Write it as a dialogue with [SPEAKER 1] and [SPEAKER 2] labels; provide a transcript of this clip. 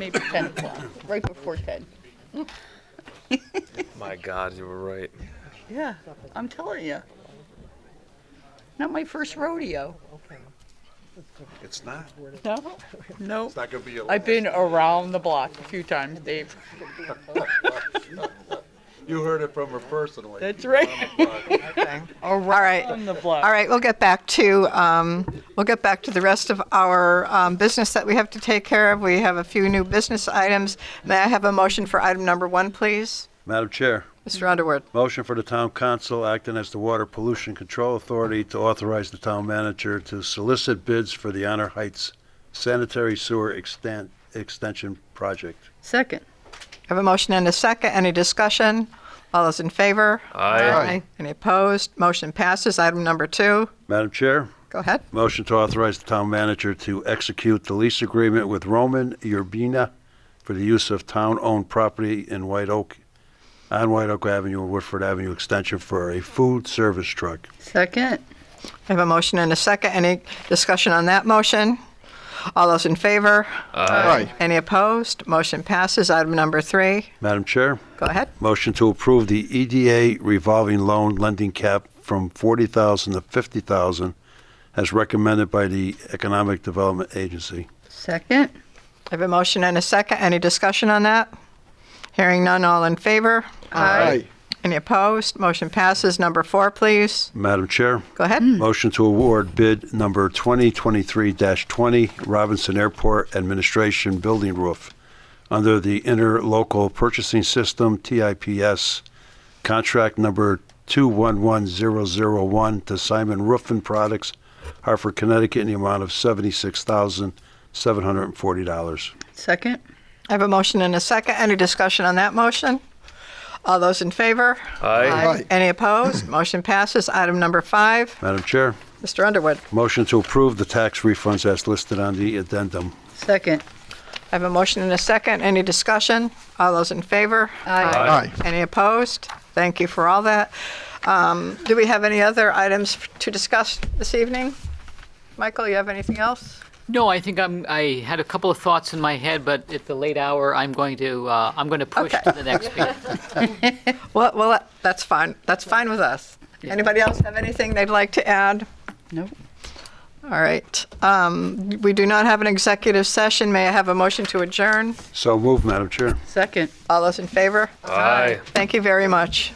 [SPEAKER 1] maybe 10 o'clock, right before 10.
[SPEAKER 2] My God, you were right.
[SPEAKER 1] Yeah, I'm telling you. Not my first rodeo.
[SPEAKER 3] It's not.
[SPEAKER 1] No, no.
[SPEAKER 3] It's not gonna be your
[SPEAKER 1] I've
[SPEAKER 3] last.
[SPEAKER 1] been around the block a few times, Dave.
[SPEAKER 3] You heard it from her personally.
[SPEAKER 1] That's right.
[SPEAKER 4] All right.
[SPEAKER 1] On the block.
[SPEAKER 4] All right, we'll get back to, um, we'll get back to the rest of our um, business that we have to take care of. We have a few new business items. May I have a motion for item number one, please?
[SPEAKER 5] Madam Chair,
[SPEAKER 4] Mr. Underwood.
[SPEAKER 5] motion for the town council acting as the Water Pollution Control Authority to authorize the town manager to solicit bids for the Honor Heights sanitary sewer extent, extension project.
[SPEAKER 1] Second.
[SPEAKER 4] I have a motion and a second. Any discussion? All those in favor?
[SPEAKER 2] Aye.
[SPEAKER 4] Any opposed? Motion passes. Item number two.
[SPEAKER 5] Madam Chair,
[SPEAKER 4] Go ahead.
[SPEAKER 5] motion to authorize the town manager to execute the lease agreement with Roman Urbina for the use of town-owned property in White Oak, on White Oak Avenue and Woodford Avenue Extension for a food service truck.
[SPEAKER 1] Second.
[SPEAKER 4] I have a motion and a second. Any discussion on that motion? All those in favor? Aye. Any opposed? Motion passes. Item number three.
[SPEAKER 5] Madam Chair?
[SPEAKER 4] Go ahead.
[SPEAKER 5] Motion to approve the EDA revolving loan lending cap from 40,000 to 50,000 as recommended by the Economic Development Agency.
[SPEAKER 1] Second.
[SPEAKER 4] I have a motion and a second. Any discussion on that? Hearing none, all in favor? Aye. Any opposed? Motion passes. Number four, please.
[SPEAKER 5] Madam Chair,
[SPEAKER 4] Go ahead.
[SPEAKER 5] motion to award bid number 2023-20 Robinson Airport Administration Building Roof under the Interlocal Purchasing System TIPS contract number 211001 to Simon Roofing Products, Hartford, Connecticut, in the amount of $76,740.
[SPEAKER 1] Second.
[SPEAKER 4] I have a motion and a second. Any discussion on that motion? All those in favor? Aye. Any opposed? Motion passes. Item number five.
[SPEAKER 5] Madam Chair,
[SPEAKER 4] Mr. Underwood.
[SPEAKER 5] motion to approve the tax refunds as listed on the addendum.
[SPEAKER 1] Second.
[SPEAKER 4] I have a motion and a second. Any discussion? All those in favor?
[SPEAKER 2] Aye.
[SPEAKER 4] Any opposed? Thank you for all that. Um, Do we have any other items to discuss this evening? Michael, you have anything else?
[SPEAKER 6] No, I think I'm. I had a couple of thoughts in my head, but at the late hour, I'm going to. Uh, I'm going to push
[SPEAKER 4] Okay.
[SPEAKER 6] to the next meeting.
[SPEAKER 4] Well, well, that's fine. That's fine with us. Anybody else have anything they'd like to add?
[SPEAKER 1] Nope.
[SPEAKER 4] All right. Um, We do not have an executive session. May I have a motion to adjourn?
[SPEAKER 5] So moved, Madam Chair.
[SPEAKER 1] Second.
[SPEAKER 4] All those in favor?
[SPEAKER 2] Aye.
[SPEAKER 4] Thank you very much.